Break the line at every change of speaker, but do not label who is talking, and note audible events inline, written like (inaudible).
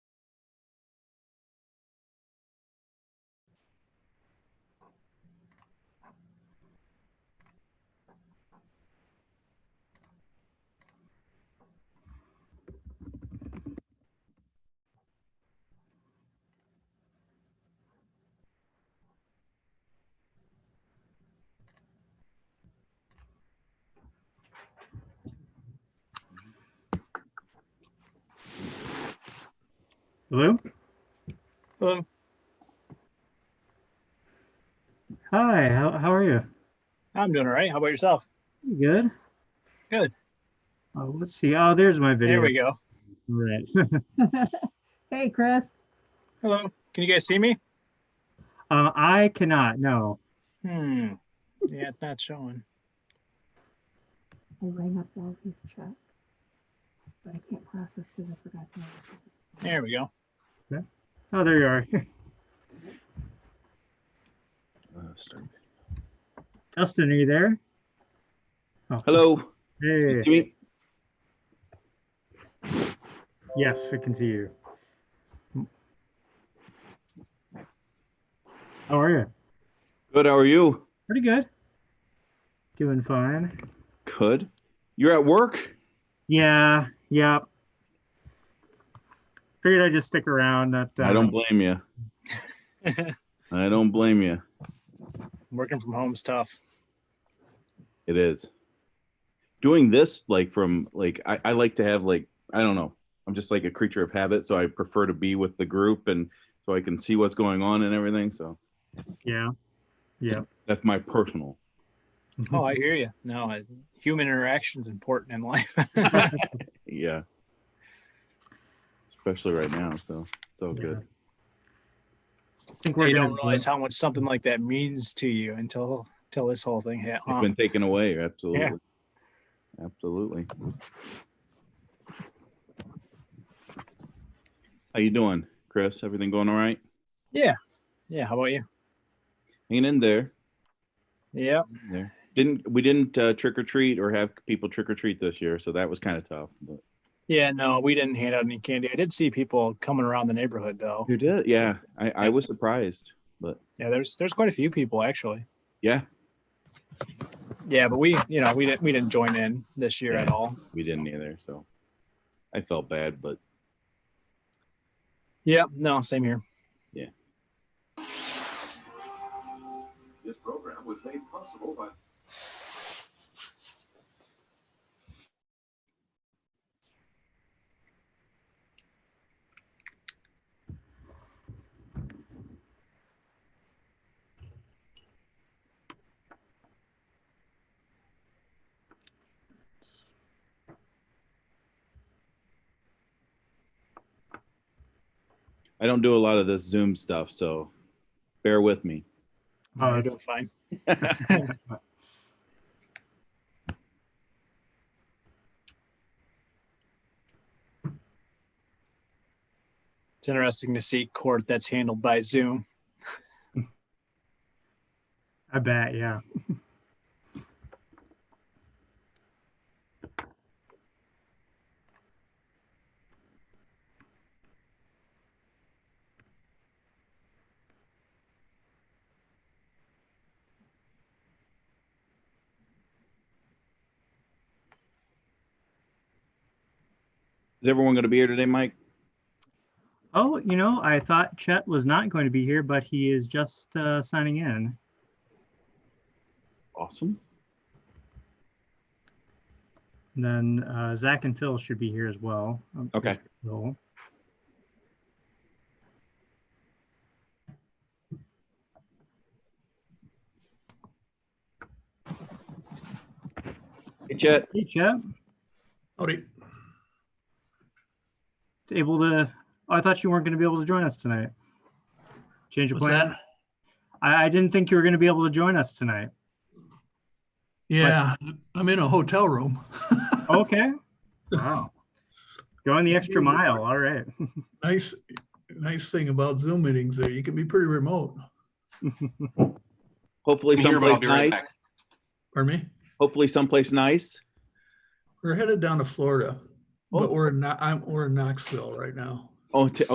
Hello?
Hello.
Hi, how, how are you?
I'm doing all right. How about yourself?
You Good?
Good.
Oh, let's see. Oh, there's my video.
There we go.
Right.
Hey, Chris.
Hello. Can you guys see me?
Uh, I cannot, no.
Hmm. Yeah, it's not showing.
I rang up Wally's check. But I can't process because I forgot to.
There we go.
Oh, there you are. (laughs) Dustin, are you there? Oh,
Hello,
Hey,
Jimmy.
yes, we can see you. How are you?
Good. How are you?
Pretty good. Doing fine.
Good. You're at work.
Yeah, yeah. Figured I'd just stick around, not.
I
uh,
don't blame you. I don't blame you.
Working from home's tough.
It is doing this like from like I, I like to have like I don't know. I'm just like a creature of habit, so I prefer to be with the group and so I can see what's going on and everything. So
Yeah, yeah.
that's my personal.
Oh, I hear you. No, I, human interaction's important in life. (laughs)
(laughs)
Yeah. Especially right now, so it's all good.
think gonna
you don't realize how much something like that means to you until until this whole thing hit.
It's
huh?
been taken away. Absolutely. Absolutely. How you doing, Chris? Everything going all right?
Yeah. Yeah. How about you?
Hanging in there.
Yeah.
There. Didn't we didn't uh, trick or treat or have people trick or treat this year, so that was kind of tough. But
Yeah. No, we didn't hand out any candy. I did see people coming around the neighborhood though.
you did, yeah. I, I was surprised.
Yeah. There's there's quite a few people actually.
Yeah,
Yeah, but we you know we didn't we didn't join in this year at
Yeah.
all.
we didn't either, so I felt bad, but
Yeah. No. Same here.
This program was made possible by
I don't do a lot of this Zoom stuff, so bear with me.
Oh,
You're
it's-
doing fine. (laughs) It's interesting to see court that's handled by Zoom.
I bet, yeah.
Is everyone going to be here today, Mike?
Oh, you know, I thought Chet was not going to be here, but he is just uh, signing in.
Awesome.
And then uh, Zach and Phil should be here as well. Um,
Okay.
Phil.
Hey, Chet.
Hey, Chet,
Howdy.
able to? Oh, I thought you weren't going to be able to join us tonight. Change of
What's
plan.
that?
I, I didn't think you were going to be able to join us tonight.
Yeah, I'm in a hotel room. (laughs)
Okay. Wow. Going the extra mile. All right.
Nice, nice thing about Zoom meetings there, you can be pretty remote.
Hopefully,
I'm here, but I'll
someplace
be right
nice.
back.
Pardon me?
Hopefully, someplace nice.
We're headed down to Florida,
Oh.
but we're not, I'm, we're in Knoxville right now.
Oh, t-